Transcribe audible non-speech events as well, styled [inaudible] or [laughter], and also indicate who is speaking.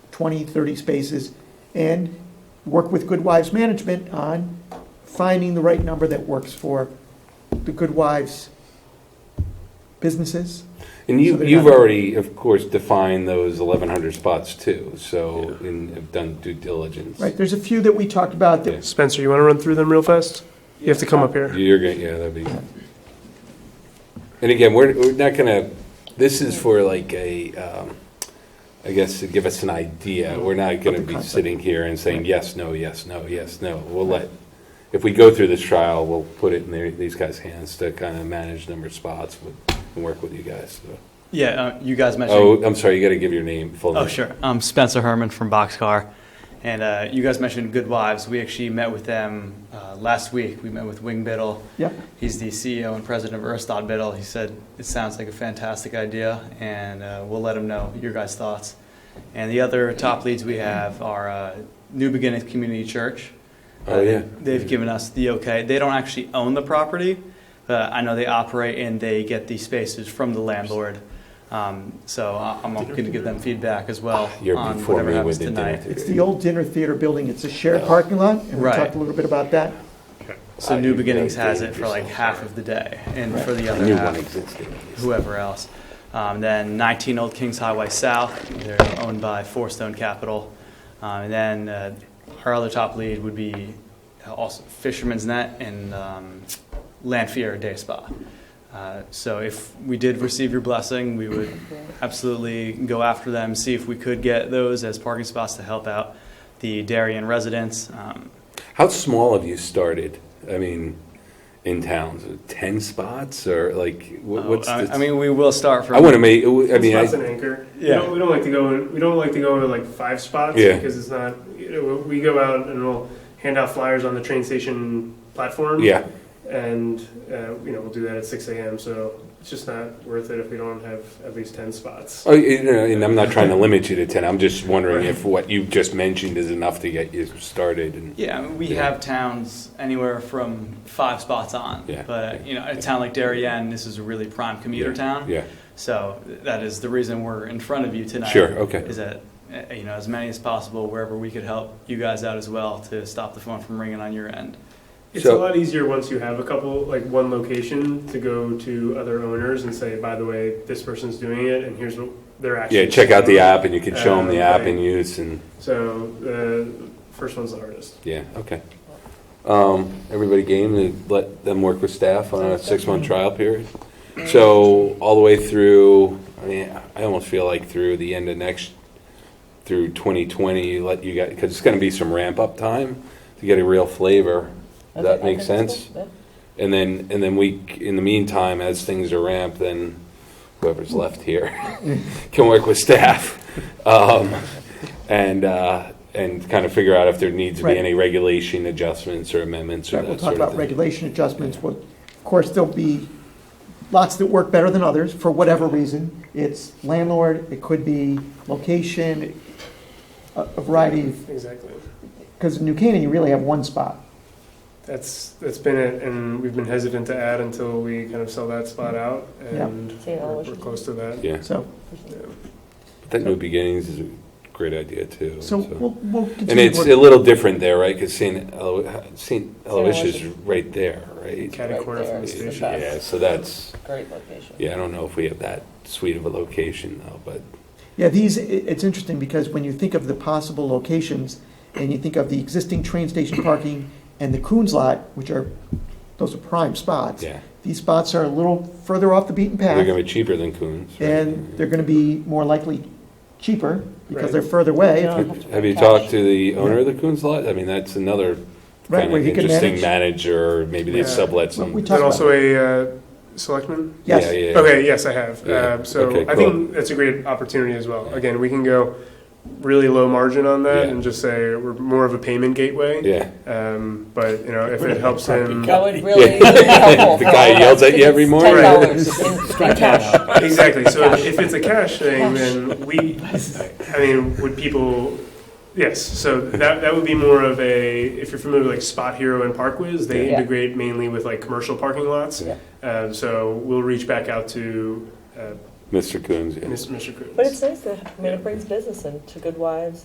Speaker 1: 20, 30 spaces, and work with Good Wives Management on finding the right number that works for the Good Wives businesses.
Speaker 2: And
Speaker 1: So
Speaker 2: you,
Speaker 1: they're
Speaker 2: you've
Speaker 1: not-
Speaker 2: already, of course, defined those 1,100 spots too, so, and have done due diligence.
Speaker 1: Right, there's a few that we talked about that
Speaker 3: Spencer, you want to run through them real fast? You have to come up here.
Speaker 2: You're going yeah, that'd be. And again, we're, we're not gonna, this is for like a, um, I guess to give us an idea. We're not gonna
Speaker 1: the
Speaker 2: be
Speaker 1: concept.
Speaker 2: sitting here and saying, yes, no, yes, no, yes, no. We'll let, if we go through this trial, we'll put it in their, these guys' hands to kind of manage number of spots with- and work with you guys. so.
Speaker 4: Yeah, uh, you guys mentioned.
Speaker 2: Oh, I'm sorry, you gotta give your name, full name.
Speaker 4: Oh, sure. I'm Spencer Herman from Boxcar. And uh, you guys mentioned Good Wives. We actually met with them uh, last week. We met with Wing Biddle.
Speaker 1: Yep.
Speaker 4: He's the CEO and president of Aristotle Biddle. He said, It sounds like a fantastic idea, and uh, we'll let him know your guys' thoughts. And the other top leads we have are uh, New Beginnings Community Church.
Speaker 2: Oh,
Speaker 4: Uh,
Speaker 2: yeah.
Speaker 4: They've given us the okay. They don't actually own the property. Uh, I know they operate and they get the spaces from the landlord. Um, so I- I'm going to give them feedback as well
Speaker 2: You're
Speaker 4: on
Speaker 2: before
Speaker 4: whatever
Speaker 2: me
Speaker 4: happens
Speaker 2: with the dinner.
Speaker 4: tonight.
Speaker 1: It's the old dinner theater building, it's a shared parking lot, and we
Speaker 4: Right.
Speaker 1: talked a little bit about that.
Speaker 4: So
Speaker 2: Uh,
Speaker 4: New
Speaker 2: you've
Speaker 4: Beginnings
Speaker 2: gotta
Speaker 4: has
Speaker 2: date
Speaker 4: it for like
Speaker 2: yourself,
Speaker 4: half
Speaker 2: sorry.
Speaker 4: of the day, and
Speaker 1: Right.
Speaker 4: for the
Speaker 2: I
Speaker 4: other
Speaker 2: knew one
Speaker 4: half,
Speaker 2: existed.
Speaker 4: whoever else. Um, then 19 Old Kings Highway South, they're owned by Four Stone Capital. Um, and then uh, our other top lead would be uh, also Fisherman's Net and um, Lanfear Day Spa. Uh, so if we did receive your blessing, we would absolutely go after them, see if we could get those as parking spots to help out the Darien residents. Um,
Speaker 2: How small have you started? I mean, in towns, ten spots or like what, what's?
Speaker 4: Oh, uh, I,
Speaker 2: the,
Speaker 4: I mean, we will start from.
Speaker 2: I want to make. I mean,
Speaker 3: Spots an
Speaker 2: I,
Speaker 3: anchor. We
Speaker 4: Yeah.
Speaker 3: don't, we don't like to go. In, we don't like to go into like five spots
Speaker 2: Yeah.
Speaker 3: because it's not. You know, we go out and we'll hand out flyers on the train station platform.
Speaker 2: yeah,
Speaker 3: And uh, you know we'll do that at six a.m. So it's just not worth it if we don't have at least ten spots.
Speaker 2: oh, you know, and I'm not trying to limit you to ten. I'm just wondering if what you just mentioned is enough to get you started. And
Speaker 4: Yeah, I mean, we
Speaker 2: Yeah.
Speaker 4: have towns anywhere from five spots on.
Speaker 2: Yeah,
Speaker 4: But,
Speaker 2: yeah,
Speaker 4: you know, a town like Darien, this is a really prime commuter
Speaker 2: Yeah,
Speaker 4: town.
Speaker 2: yeah,
Speaker 4: So that is the reason we're in front of you tonight.
Speaker 2: Sure, okay.
Speaker 4: Is that, uh, you know, as many as possible, wherever we could help you guys out as well to stop the phone from ringing on your end.
Speaker 3: It's
Speaker 2: So-
Speaker 3: a lot easier once you have a couple, like one location, to go to other owners and say, by the way, this person's doing it, and here's what they're actually.
Speaker 2: yeah. Check out the
Speaker 3: doing."
Speaker 2: app, and you can show them the
Speaker 3: Uh,
Speaker 2: app
Speaker 3: right.
Speaker 2: in use. And
Speaker 3: So the first one's the hardest.
Speaker 2: yeah, okay. Um, everybody game to let them work with staff on a six month trial period. So all the way through, I mean, I almost feel like through the end of next, through 2020, you let you guys, because it's going to be some ramp up time to get a real flavor. Does that make sense? And then, and then we, in the meantime, as things are ramped, then whoever's left here [laughs] can work with staff. Um, and, uh, and kind of figure out if there needs to be
Speaker 1: Right.
Speaker 2: any regulation adjustments or amendments or
Speaker 1: Right, We'll
Speaker 2: that
Speaker 1: talk
Speaker 2: sort of
Speaker 1: about
Speaker 2: thing.
Speaker 1: regulation adjustments, Well, of course, there'll be lots that work better than others, for whatever reason. It's landlord, it could be location, a a variety of
Speaker 3: Exactly.
Speaker 1: Because in New Canaan, you really have one spot.
Speaker 3: That's, that's been it, and we've been hesitant to add until we kind of sell that spot out, and
Speaker 5: Yeah.
Speaker 3: we're we're close to that.
Speaker 2: Yeah,
Speaker 1: So,
Speaker 2: that New Beginnings is a great idea too.
Speaker 1: so we'll, we'll
Speaker 2: And
Speaker 1: continue.
Speaker 2: it's a
Speaker 1: to work-
Speaker 2: little different there, right? Because St. Elo- St. Aloysius is
Speaker 5: Aloysius.
Speaker 2: right there, right?
Speaker 3: Cat and corner from the
Speaker 5: Right there.
Speaker 3: station.
Speaker 2: Yeah, so that's,
Speaker 5: Great location.
Speaker 2: yeah, I don't know if we have that sweet of a location though, but
Speaker 1: Yeah, these, i- it's interesting because when you think of the possible locations and you think of the existing train station parking and the Coons lot, which are, those are prime spots.
Speaker 2: yeah.
Speaker 1: These spots are a little further off the beaten
Speaker 2: They're gonna
Speaker 1: path
Speaker 2: be cheaper than Coons. right?
Speaker 1: and they're going to be more likely cheaper because
Speaker 3: Right.
Speaker 1: they're further away.
Speaker 5: Yeah.
Speaker 2: Have have you talked to the owner of the Coons lot? I mean, that's another
Speaker 1: Right,
Speaker 2: kind
Speaker 1: where
Speaker 2: of
Speaker 1: he could
Speaker 2: interesting
Speaker 1: manage.
Speaker 2: manager, maybe they
Speaker 3: Yeah.
Speaker 2: sublet
Speaker 1: Well, we
Speaker 2: some.
Speaker 1: talked
Speaker 3: And
Speaker 1: about
Speaker 3: also a uh, selectman?
Speaker 1: Yes.
Speaker 2: Yeah, yeah.
Speaker 3: Okay, yes, I have.
Speaker 2: Yeah.
Speaker 3: Uh, So
Speaker 2: Okay,
Speaker 3: I
Speaker 2: cool.
Speaker 3: think that's a great opportunity as well. Again, we can go really low margin on that
Speaker 2: Yeah.
Speaker 3: and just say we're more of a payment gateway.
Speaker 2: Yeah.
Speaker 3: Um, But, you know, if it helps him.
Speaker 5: That
Speaker 2: [laughs]
Speaker 5: would really be helpful.
Speaker 2: The guy yells at you every morning.
Speaker 5: Ten dollars in
Speaker 2: [laughs]
Speaker 5: in cash.
Speaker 3: [laughs] Exactly. So if it's a cash thing, then [laughs] we, I mean, would people, yes. So that, that would be more of a, if you're familiar with like Spot Hero and Parkwiz, they
Speaker 5: Yeah.
Speaker 3: integrate mainly with like commercial parking lots.
Speaker 2: Yeah.
Speaker 3: Um, so we'll reach back out to uh,
Speaker 2: Mr. Coons, yeah.
Speaker 3: Mr. Coons.
Speaker 5: But it's nice that, I mean, it brings business into Good Wives